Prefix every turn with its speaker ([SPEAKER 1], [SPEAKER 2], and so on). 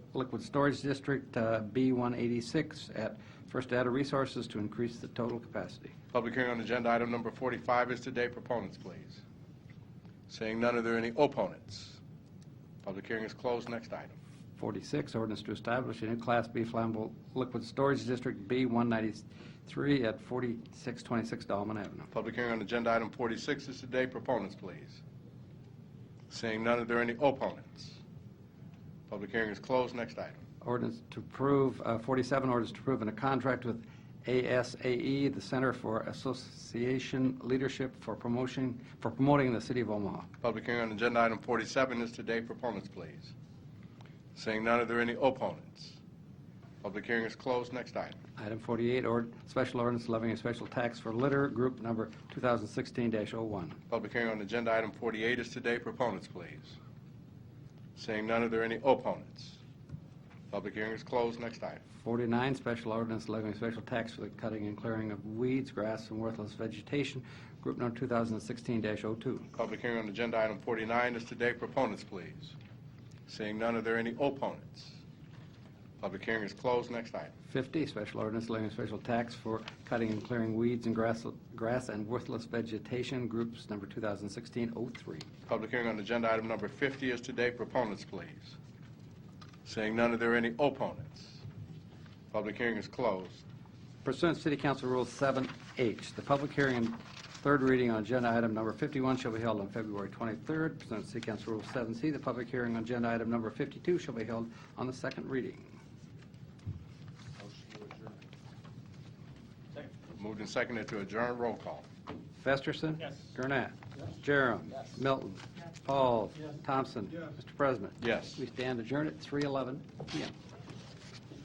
[SPEAKER 1] Liquid Storage District, uh, B186, at First Data Resources to increase the total capacity.
[SPEAKER 2] Public hearing on agenda item number 45 is today. Proponents, please. Seeing none, are there any opponents? Public hearing is closed. Next item.
[SPEAKER 1] 46, ordinance to establish a new Class B flammable liquid storage district, B193, at 4626 Dolman Avenue.
[SPEAKER 2] Public hearing on agenda item 46 is today. Proponents, please. Seeing none, are there any opponents? Public hearing is closed. Next item.
[SPEAKER 1] Ordinance to approve, uh, 47, ordinance to approve in a contract with ASAE, E, the Center for Association Leadership for Promotion, for promoting the city of Omaha.
[SPEAKER 2] Public hearing on agenda item 47 is today. Proponents, please. Seeing none, are there any opponents? Public hearing is closed. Next item.
[SPEAKER 1] Item 48, or special ordinance levying a special tax for litter, group number 2016-01.
[SPEAKER 2] Public hearing on agenda item 48 is today. Proponents, please. Seeing none, are there any opponents? Public hearing is closed. Next item.
[SPEAKER 1] 49, special ordinance levying a special tax for the cutting and clearing of weeds, grass, and worthless vegetation, group number 2016-02.
[SPEAKER 2] Public hearing on agenda item 49 is today. Proponents, please. Seeing none, are there any opponents? Public hearing is closed. Next item.
[SPEAKER 1] 50, special ordinance levying a special tax for cutting and clearing weeds and grass, grass and worthless vegetation, groups number 2016-03.
[SPEAKER 2] Public hearing on agenda item number 50 is today. Proponents, please. Seeing none, are there any opponents? Public hearing is closed.
[SPEAKER 1] Pursuant to City Council Rule 7H, the public hearing and third reading on agenda item number 51 shall be held on February 23rd. Pursuant to City Council Rule 7C, the public hearing on agenda item number 52 shall be held on the second reading.
[SPEAKER 2] Moved and seconded to adjourn. Roll call.
[SPEAKER 1] Festerson.
[SPEAKER 3] Yes.
[SPEAKER 1] Gurnett.
[SPEAKER 3] Yes.
[SPEAKER 1] Jerem.
[SPEAKER 3] Yes.
[SPEAKER 1] Milton. Paul.
[SPEAKER 3] Yes.
[SPEAKER 1] Thompson.
[SPEAKER 3] Yes.
[SPEAKER 1] Mr. President.
[SPEAKER 2] Yes.
[SPEAKER 1] We stand adjourned at 3:11 PM.